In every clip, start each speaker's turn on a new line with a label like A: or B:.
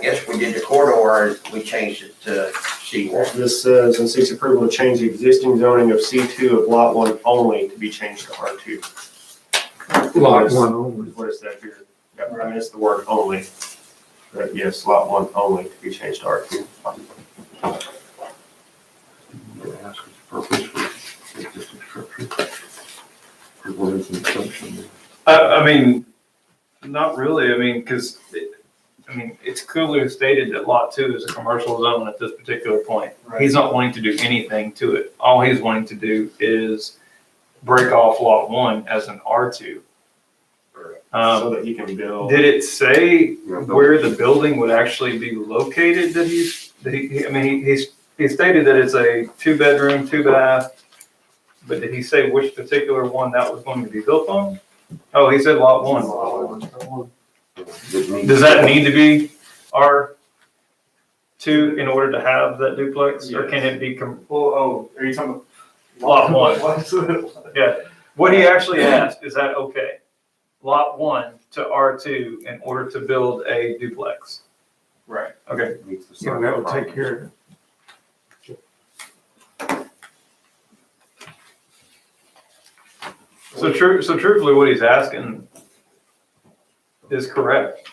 A: guess we did the corridor, and we changed it to C one.
B: This says, and seeks approval to change the existing zoning of C2 of Lot 1 only to be changed to R2.
C: Lot one only.
B: What is that here? Yep, I missed the word only. But yes, Lot 1 only to be changed to R2.
D: They ask its purpose for existing structure. Or What is the assumption?
E: I, I mean, not really, I mean, because, I mean, it's clearly stated that lot two is a commercial zone at this particular point. He's not wanting to do anything to it. All he's wanting to do is break off lot one as an R two.
B: So
E: Um,
B: that he can build.
E: did it say
D: Yeah, building.
E: where the building would actually be located that he's, that he, he- I mean, he's, he stated that it's a two bedroom, two bath. But did he say which particular one that was going to be built on? Oh, he said lot one. Does that need to be R two in order to have that duplex, or can it be, com-
F: Well, oh, are you talking about?
E: Lot one.
F: What's it?
E: yeah, what he actually asked, is that okay? Lot one to R two in order to build a duplex?
F: Right.
E: Okay,
D: Meets the
C: Yeah,
D: size
C: that would take
D: requirements.
C: care of it.
E: so true, so truthfully, what he's asking is correct.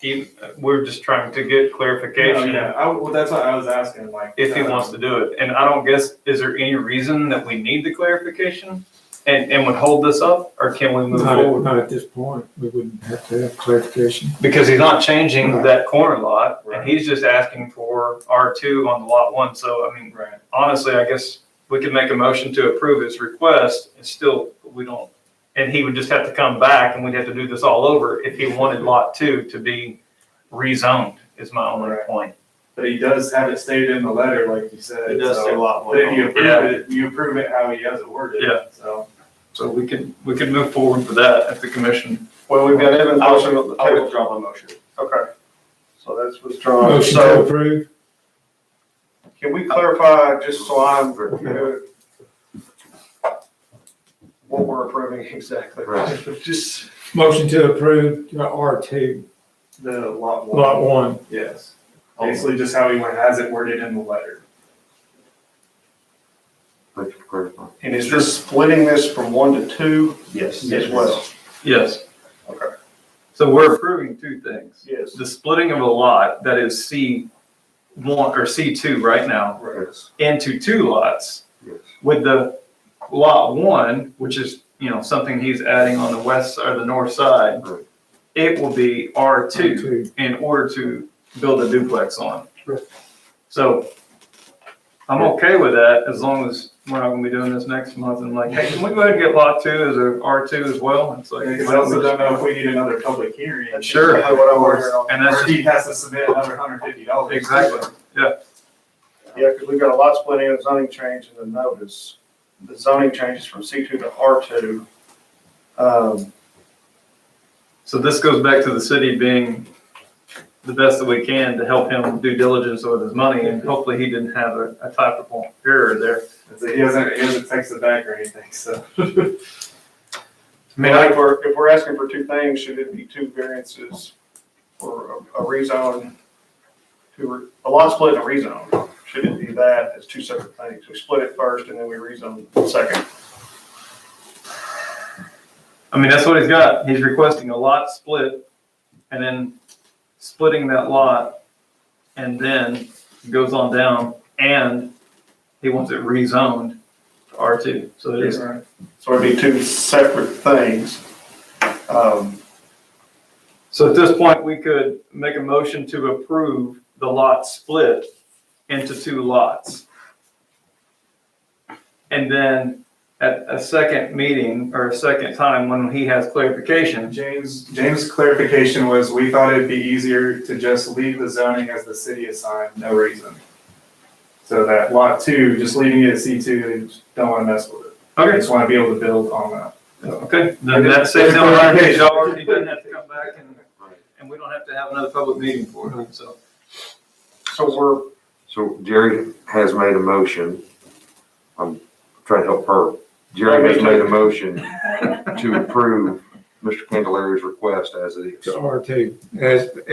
E: He, we're just trying to get
F: Yeah,
E: clarification.
F: yeah, I, well, that's what I was asking, like. uh,
E: if he wants to do it. And I don't guess, is there any reason that we need the clarification and, and would hold this up, or can we move
C: Not at,
E: forward?
C: not at this point, we wouldn't have to have clarification.
E: Because he's not changing
C: Right.
E: that corner lot,
F: Right.
E: and he's just asking for R two on the lot one, so I mean,
F: Right,
E: honestly, I guess we could make a motion to approve his request, and still, we don't, and he would just have to come back, and we'd have to do this all over if he wanted lot two to be rezoned, is my only
F: Right.
E: point.
F: but he does have it stated in the letter, like you said.
B: It does
F: so-
B: say Lot
F: But
B: 1
F: if you
B: only.
E: Yeah.
F: approve it, you approve it how he has it worded.
E: Yeah.
F: So.
E: So we could, we could move forward with that if the commission.
B: Well,
E: we've got Evan's motion on the
B: I'll
E: table.
B: withdraw my motion.
E: Okay, so that's withdrawn.
C: Motion to approve,
G: Can we clarify, just so I'm, what we're approving exactly?
D: Right.
G: Just
C: motion to approve R two,
F: The lot one.
C: lot one.
F: Yes. Basically just how he has it worded in the letter.
D: Thank you for clarifying.
G: And is this splitting this from one to two
B: Yes.
G: as well?
E: Yes.
G: Okay.
E: So we're approving two things.
G: Yes.
E: The splitting of a lot that is C one or C two right now
D: Yes,
E: into two lots
D: yes.
E: with the lot one, which is, you know, something he's adding on the west or the north side.
D: Right.
E: It will be R two
C: Two.
E: in order to build a duplex on.
C: Right.
E: So I'm okay with that as long as we're not gonna be doing this next month and like, hey, can we go ahead and get lot two as a R two as well? It's like.
F: Because I also don't know if we need another public hearing.
E: Sure.
F: Or-
G: What I wanted.
E: And that's
F: Or
E: just-
F: he has to submit another hundred fifty dollars.
E: exactly.
G: Yeah, because we've got a lot splitting and zoning change in the notice. The zoning changes from C two to R two. Um,
E: So this goes back to the city being the best that we can to help him do diligence with his money, and hopefully he didn't have a, a typical error there.
F: So he hasn't, he hasn't texted back or anything, so.
G: I mean, if we're, if we're asking for two things, should it be two variances for a a rezone? to re- a lot split and a rezone, should it be that as two separate things? We split it first and then we rezone second.
E: I mean, that's what he's got. He's requesting a lot split and then splitting that lot and then goes on down and he wants it rezoned to R2. So it is,
G: So it'd be two separate things. Um,
E: so at this point, we could make a motion to approve the lot split into two lots. And then at a second meeting or a second time when he has clarification,
F: James, James' clarification was, we thought it'd be easier to just leave the zoning as the city assigned, no reason. So that lot two, just leaving it at C two, don't wanna mess with it. I
E: okay,
F: just wanna be able to build on that.
E: Okay, then that saves him a lot of dollars, he doesn't have to come back and, and we don't have to have another public meeting for it, so.
G: so we're
D: So Jerry has made a motion. I'm trying to help her. Jerry has made a motion to approve Mr. Candelari's request as it is.
C: To R two, as,